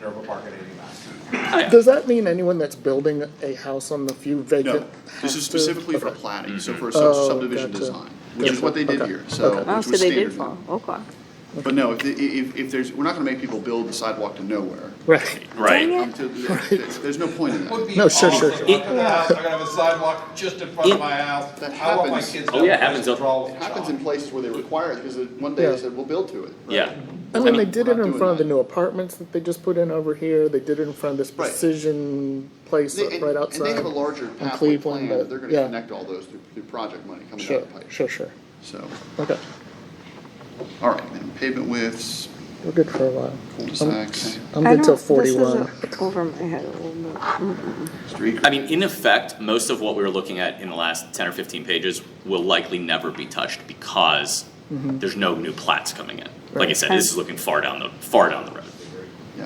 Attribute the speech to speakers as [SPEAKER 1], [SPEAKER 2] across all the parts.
[SPEAKER 1] Dover Park at eighty-nine.
[SPEAKER 2] Does that mean anyone that's building a house on the few vacant?
[SPEAKER 3] No, this
[SPEAKER 2] has
[SPEAKER 3] is
[SPEAKER 2] to-
[SPEAKER 3] specifically for
[SPEAKER 2] okay.
[SPEAKER 3] planning, so for a
[SPEAKER 2] Oh,
[SPEAKER 3] sub- subdivision
[SPEAKER 2] gotcha.
[SPEAKER 3] design, which is
[SPEAKER 2] Gotcha.
[SPEAKER 3] what they did
[SPEAKER 2] Okay.
[SPEAKER 3] here, so,
[SPEAKER 2] Okay.
[SPEAKER 4] Oh,
[SPEAKER 3] which
[SPEAKER 4] so
[SPEAKER 3] was
[SPEAKER 4] they did
[SPEAKER 3] standard.
[SPEAKER 4] fall, okay.
[SPEAKER 3] But no, if, if, if there's, we're not gonna make people build the sidewalk to nowhere.
[SPEAKER 2] Right,
[SPEAKER 4] Dang
[SPEAKER 5] Right.
[SPEAKER 4] it.
[SPEAKER 3] Um, to- There's there's no point in that.
[SPEAKER 2] No, sure, sure, sure.
[SPEAKER 1] I gotta have a sidewalk just in front of my house.
[SPEAKER 3] That
[SPEAKER 1] I want my
[SPEAKER 3] happens.
[SPEAKER 1] kids to
[SPEAKER 5] Oh, yeah,
[SPEAKER 1] have a
[SPEAKER 5] happens
[SPEAKER 1] place to
[SPEAKER 5] up-
[SPEAKER 1] draw with
[SPEAKER 3] It
[SPEAKER 1] a
[SPEAKER 3] happens
[SPEAKER 1] chalk.
[SPEAKER 3] in places where they require it, because it- one day they
[SPEAKER 2] Yeah.
[SPEAKER 3] said, we'll build to it. right?
[SPEAKER 5] Yeah.
[SPEAKER 2] I mean,
[SPEAKER 3] mean,
[SPEAKER 2] they did
[SPEAKER 3] we're
[SPEAKER 2] it
[SPEAKER 3] not
[SPEAKER 2] in
[SPEAKER 3] doing
[SPEAKER 2] front of the
[SPEAKER 3] that.
[SPEAKER 2] new apartments that they just put in over here, they did it in front of this
[SPEAKER 3] Right.
[SPEAKER 2] precision place
[SPEAKER 3] They-
[SPEAKER 2] up
[SPEAKER 3] And
[SPEAKER 2] right
[SPEAKER 3] and they
[SPEAKER 2] outside.
[SPEAKER 3] have a larger pathway
[SPEAKER 2] Cleveland,
[SPEAKER 3] plan, that
[SPEAKER 2] but-
[SPEAKER 3] they're
[SPEAKER 2] yeah.
[SPEAKER 3] gonna connect all those through, through project money coming out
[SPEAKER 2] Sure,
[SPEAKER 3] of the pipe,
[SPEAKER 2] sure, sure,
[SPEAKER 3] so.
[SPEAKER 2] okay,
[SPEAKER 3] All right, then pavement widths,
[SPEAKER 2] we're good for a while.
[SPEAKER 3] cul-de-sacs,
[SPEAKER 2] I'm
[SPEAKER 4] I
[SPEAKER 2] good till
[SPEAKER 4] don't- this is
[SPEAKER 2] forty-one.
[SPEAKER 4] a- Over my head a little bit.
[SPEAKER 3] street.
[SPEAKER 5] I mean, in effect, most of what we were looking at in the last ten or fifteen pages will likely never be touched because
[SPEAKER 4] Mm-hmm.
[SPEAKER 5] there's no new plats coming in. Like I
[SPEAKER 2] Right.
[SPEAKER 5] said, this is looking far down the, far down the road.
[SPEAKER 3] Yeah,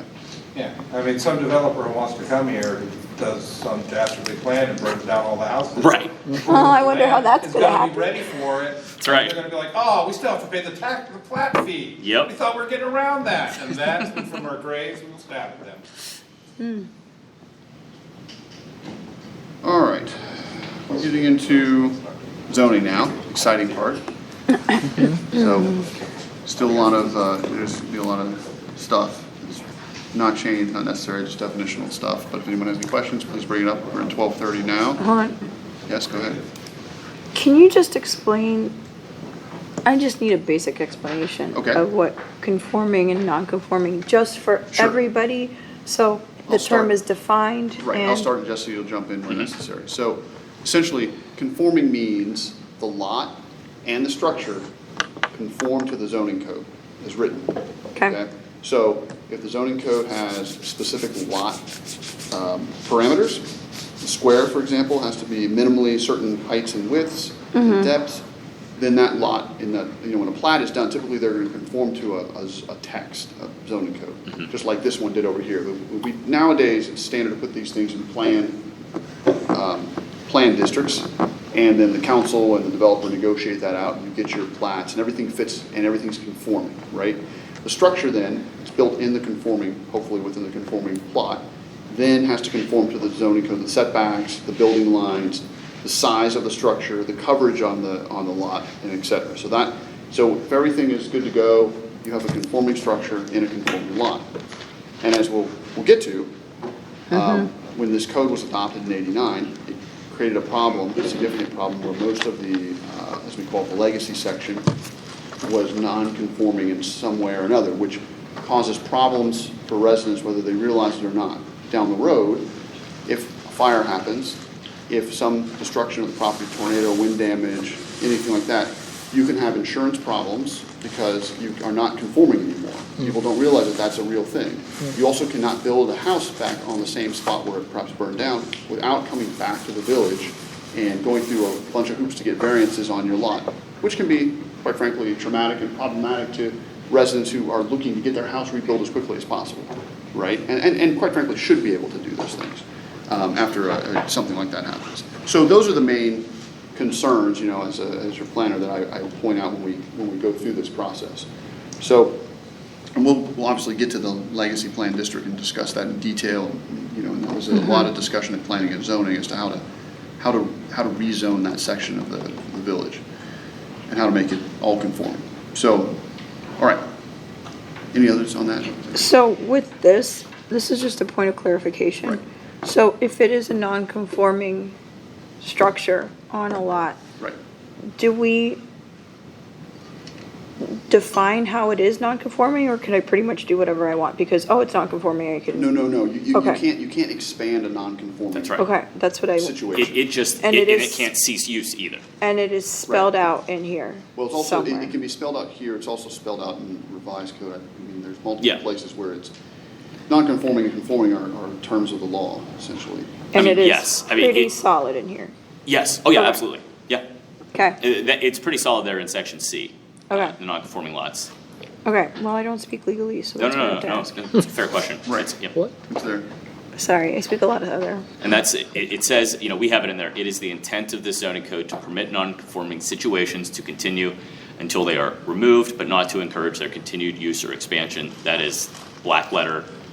[SPEAKER 1] Yeah, I mean, some developer who wants to come here does some dastardly plan and burns down all the houses.
[SPEAKER 5] Right.
[SPEAKER 4] Oh, I wonder how that's
[SPEAKER 1] It's
[SPEAKER 4] gonna
[SPEAKER 1] gotta be
[SPEAKER 4] happen.
[SPEAKER 1] ready for it. That's
[SPEAKER 5] right.
[SPEAKER 1] They're gonna be like, oh, we still have to pay the tax, the plat fee.
[SPEAKER 5] Yep.
[SPEAKER 1] We thought we were getting around that, and that's when from our graves, we'll stab at them.
[SPEAKER 3] all right. We're getting into zoning now, exciting part. So, still a lot of, uh, there's gonna be a lot of stuff. that's Not changed, not necessary, just definitional stuff, but if anyone has any questions, please bring it up. We're at twelve thirty now.
[SPEAKER 4] Hold on.
[SPEAKER 3] Yes, go ahead.
[SPEAKER 4] Can you just explain? I just need a basic explanation
[SPEAKER 3] Okay.
[SPEAKER 4] of what conforming and non-conforming, just for
[SPEAKER 3] Sure.
[SPEAKER 4] everybody. So the
[SPEAKER 3] I'll
[SPEAKER 4] term
[SPEAKER 3] start.
[SPEAKER 4] is defined.
[SPEAKER 3] Right, I'll
[SPEAKER 4] and-
[SPEAKER 3] start and Jesse, you'll jump in where necessary. So essentially, conforming means the lot and the structure conform to the zoning code as written.
[SPEAKER 4] Okay.
[SPEAKER 3] So if the zoning code has specific lot um, parameters, the square, for example, has to be minimally certain heights and widths and depths, then that lot in that, you know, when a plat is done, typically they're gonna conform to a, a z- a text, a zoning code, just like this one did over here. But we- Nowadays, it's standard to put these things in plan plan districts, and then the council and the developer negotiate that out, and you get your plats, and everything fits, and everything's conforming, right? The structure then, is built in the conforming, hopefully within the conforming plot, then has to conform to the zoning code, the setbacks, the building lines, the size of the structure, the coverage on the, on the lot, and et cetera. So that, so if everything is good to go, you have a conforming structure in a conforming lot. And as we'll, we'll get to, um, When this code was adopted in eighty-nine, it created a problem, a significant problem, where most of the, uh, as we call it, the legacy section was non-conforming in some way or another, which causes problems for residents, whether they realize it or not. Down the road, if a fire happens, if some destruction of the property, tornado, wind damage, anything like that, you can have insurance problems because you are not conforming anymore. People don't realize that that's a real thing. You also cannot build a house back on the same spot where it perhaps burned down without coming back to the village and going through a bunch of hoops to get variances on your lot, which can be, quite frankly, traumatic and problematic to residents who are looking to get their house rebuilt as quickly as possible, right? And, and, and quite frankly, should be able to do those things um, after uh, something like that happens. So those are the main concerns, you know, as a, as your planner that I, I will point out when we, when we go through this process. So, and we'll, we'll obviously get to the legacy plan district and discuss that in detail, you know, and there was a
[SPEAKER 4] Mm-hmm.
[SPEAKER 3] lot of discussion in planning and zoning as to how to, how to, how to rezone that section of the, the village and how to make it all conform. So, all right. Any others on that?
[SPEAKER 4] So with this, this is just a point of clarification. So if it is a non-conforming structure on a lot,
[SPEAKER 3] Right.
[SPEAKER 4] do we define how it is non-conforming, or can I pretty much do whatever I want? Because, oh, it's non-conforming, I
[SPEAKER 3] No,
[SPEAKER 4] can,
[SPEAKER 3] no, no, you, you you
[SPEAKER 4] Okay.
[SPEAKER 3] can't, you can't expand a non-conforming.
[SPEAKER 5] That's right.
[SPEAKER 4] okay, that's what I,
[SPEAKER 3] Situation.
[SPEAKER 5] It, it just, it,
[SPEAKER 4] And it
[SPEAKER 5] and it
[SPEAKER 4] is-
[SPEAKER 5] can't cease use either.
[SPEAKER 4] and it is spelled out in here
[SPEAKER 3] Well, it's also, it-
[SPEAKER 4] somewhere.
[SPEAKER 3] it can be spelled out here, it's also spelled out in revised code. I mean, there's multiple
[SPEAKER 5] Yeah.
[SPEAKER 3] places where it's, non-conforming and conforming are, are terms of the law, essentially.
[SPEAKER 4] And
[SPEAKER 5] I
[SPEAKER 4] it
[SPEAKER 5] mean,
[SPEAKER 4] is
[SPEAKER 5] yes, I mean,
[SPEAKER 4] pretty
[SPEAKER 5] it-
[SPEAKER 4] solid in here.
[SPEAKER 5] Yes, oh yeah,
[SPEAKER 4] Okay.
[SPEAKER 5] absolutely, yeah.
[SPEAKER 4] Okay,
[SPEAKER 5] It- that- it's pretty solid there in section C. uh,
[SPEAKER 4] Okay.
[SPEAKER 5] The non-conforming lots.
[SPEAKER 4] okay, well, I don't speak legally, so
[SPEAKER 5] No,
[SPEAKER 4] that's
[SPEAKER 5] no,
[SPEAKER 4] what I
[SPEAKER 5] no,
[SPEAKER 4] have to
[SPEAKER 5] no,
[SPEAKER 4] ask.
[SPEAKER 5] no, it's a fair question.
[SPEAKER 3] Right.
[SPEAKER 5] It's- yeah.
[SPEAKER 2] What?
[SPEAKER 3] It's there.
[SPEAKER 4] Sorry, I speak a lot of other,
[SPEAKER 5] And that's, it, it says, you know, we have it in there, it is the intent of this zoning code to permit non-conforming situations to continue until they are removed, but not to encourage their continued use or expansion. That is black letter